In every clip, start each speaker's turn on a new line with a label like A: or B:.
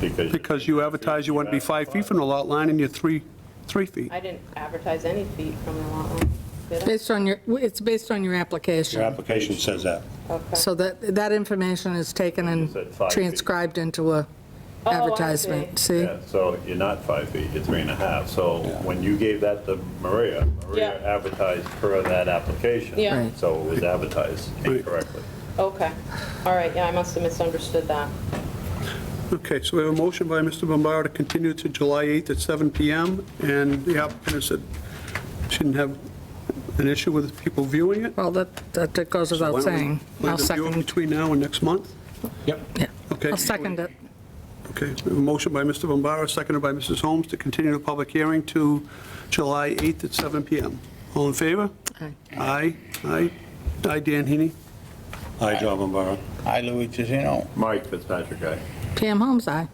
A: because.
B: Because you advertise you want to be five feet from the lot line and you're three, three feet.
C: I didn't advertise any feet from the lot line, did I?
D: Based on your, it's based on your
A: Your
D: application.
A: application says that.
C: Okay.
D: So that, that information is taken
E: It's at
D: and
E: five feet.
D: transcribed into a
C: Oh, I
D: advertisement, see?
E: Yeah, so you're not five feet, you're three and a half. So when you gave that to Maria, Maria
C: Yeah.
E: advertised per that application.
C: Yeah. Right.
E: So it was advertised
B: Right.
E: incorrectly.
C: Okay, all right, yeah, I must have misunderstood that.
B: Okay, so we have a motion by Mr. Bombara to continue to July 8th at 7 PM, and the applicant has said shouldn't have an issue with people viewing it.
D: Well, that, that goes
B: Why
D: without
B: don't we
D: saying.
B: plan
D: I'll
B: to view it
D: second,
B: Between now and next month?
D: yeah,
B: Okay.
D: I'll second it.
B: Okay, we have a motion by Mr. Bombara, seconded by Mrs. Holmes, to continue the public hearing to July 8th at 7 PM. All in favor?
D: Aye.
B: Aye, aye. Aye, Dan Heaney.
A: Hi, John Bombara.
F: Hi, Louis Tiziano.
E: Mike Fitzpatrick, aye.
D: Pam Holmes, aye.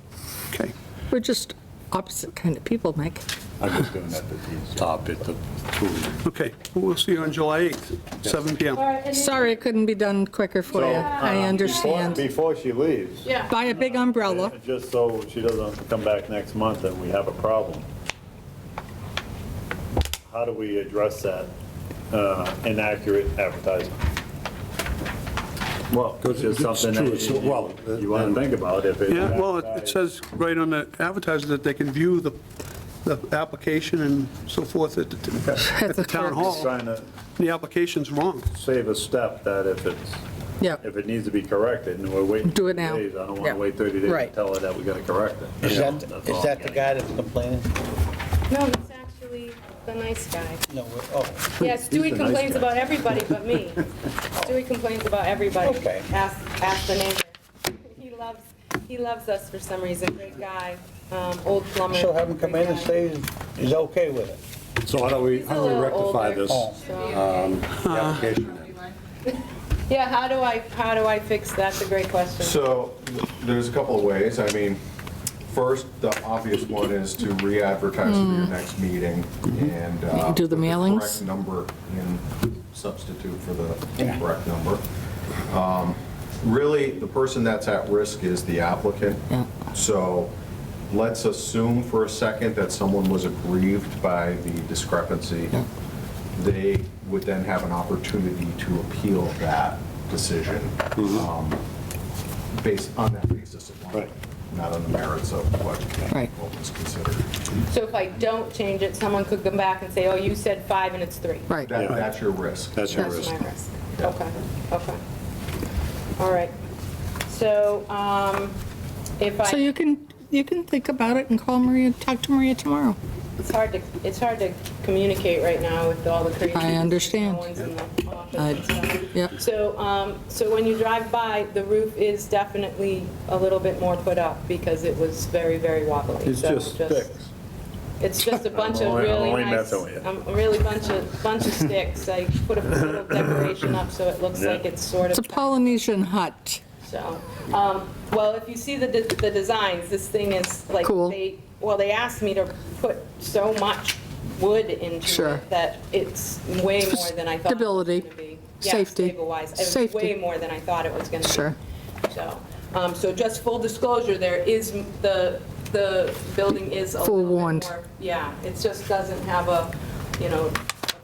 B: Okay.
D: We're just opposite kind of people, Mike.
A: I'm just doing that to top it, the food.
B: Okay, we'll see you on July 8th, 7 PM.
C: All right, and you-
D: Sorry it couldn't be done quicker for you. I understand.
E: Before she leaves,
C: Yeah.
D: Buy a big umbrella.
E: just so she doesn't come back next month and we have a problem, how do we address that uh, inaccurate advertisement? Well, it's
A: it's
E: just something
A: true, it's- well, uh,
E: that you- you want to think about if it's.
B: Yeah, well, it it says right on the advertiser that they can view the, the application and so forth at the, at the town hall.
E: Trying to
B: The application's wrong.
E: save a step that if it's,
D: Yeah,
E: if it needs to be corrected and we're waiting.
D: Do it now.
E: 30 days, I don't want
D: Yeah.
E: to wait 30 days to
D: Right.
E: tell her that we got to correct it.
F: Is
E: You know,
F: that,
E: that's all
F: is
E: I'm
F: that the
E: getting
F: guy that's complaining?
C: No, he's actually the nice guy.
F: No, we're- oh,
C: Yeah, Stewie
E: nice
C: complains
E: guy.
C: about everybody but me. Stewie complains about everybody.
F: Okay.
C: Ask, ask the neighbor. He loves, he loves us for some reason, great guy, um, old plumber.
F: so have him come in and
C: great
F: say he's okay with it.
A: So how do we, how do we rectify this
F: Oh.
A: um, application? then?
C: guy. Yeah, how do I, how do I fix, that's a great question.
G: So there's a couple of ways. I mean, first, the obvious one is to re-advertise for your next meeting and. uh,
D: Hmm. Do the
G: put
D: mailings?
G: Correct number and substitute for the correct number. Um, Really, the person that's at risk is the applicant.
D: Yeah.
G: So let's assume for a second that someone was aggrieved by the discrepancy. They would then have an opportunity to appeal that decision. Um, based on that basis alone,
A: Right.
G: not on the merits of what
D: Right.
G: what was considered.
C: So if I don't change it, someone could come back and say, oh, you said five and it's three.
D: right.
G: That- That's your risk.
A: That's your
C: That's
A: risk.
C: my risk. Okay, okay. All right. So, um, if I.
D: So you can, you can think about it and call Maria, talk to Maria tomorrow.
C: It's hard to, it's hard to communicate right now with all the crazy.
D: I understand.
C: No one's in the office
D: I-
C: and stuff.
D: yeah.
C: So, um, so when you drive by, the roof is definitely a little bit more put up because it was very, very wobbly.
E: It's
C: So
E: just sticks.
C: It's just a bunch of
E: only- I'm
C: really
E: only
C: nice,
E: messing with you.
C: um, really bunch of, bunch of sticks. I put a little decoration up so it looks
E: Yeah.
C: like it's sort
D: It's a
C: of,
D: Polynesian hut.
C: so. um, Well, if you see the, de- the designs, this thing is like,
D: Cool.
C: they, well, they asked me to put so much wood into
D: Sure.
C: it that it's way more than I thought. it was
D: Stability.
C: gonna be. Yeah,
D: Safety.
C: Stable-wise, it was
D: Safety.
C: way more than I thought it was going to be.
D: Sure.
C: So, um, so just full disclosure, there is, m- the, the building is a little bit
D: Forewarned.
C: more- Yeah, it just doesn't have a, you know, a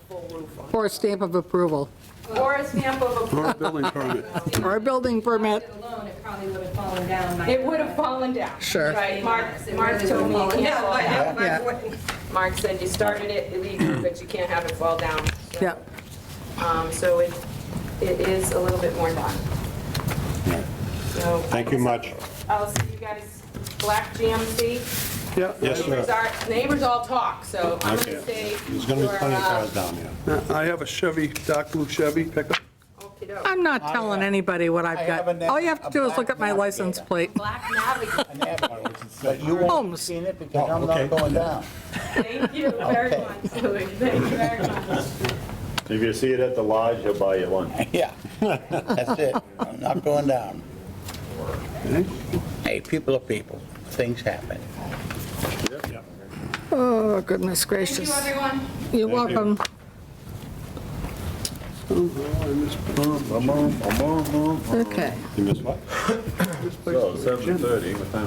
C: full roof on
D: Or a stamp of approval,
C: it. Or a stamp of approval.
B: Or a building permit.
D: or a building permit.
H: alone, it probably would have fallen down. by-
C: It would have fallen down.
D: Sure.
C: Right, Mark, Mark told me. it can't fall down. Mark said you started it illegally, but you can't have it fall down. So,
D: Yeah.
C: Um, so it, it is a little bit more done. So.
A: Thank you much.
C: I'll see you guys, Black GMC.
B: Yeah.
A: Yes,
C: Neighbors
A: sir.
C: are, neighbors all talk, so I'm
A: Okay.
C: gonna uh, say.
A: There's going to be plenty of cars down here.
B: I have a Chevy, dark blue Chevy pickup.
C: cars.
D: I'm not telling anybody what I've
F: I
D: got.
F: have a na-
D: All you have to
F: a
D: do is look
F: black
D: at my
F: navigator.
D: license plate.
C: Black Navigator,
F: An avenue. But you won't have
D: Holmes.
F: seen it because I'm
A: okay.
F: not going down.
C: thank you very
F: Okay.
C: much, Louis, thank you very much.
E: If you see it at the lodge, he'll buy you lunch.
F: Yeah, that's it. I'm not going down. Hey, people are people. Things happen.
D: Oh, goodness gracious.
C: everyone.
D: You're welcome. Okay.
A: Oh, You missed what?
E: So 7:30, what time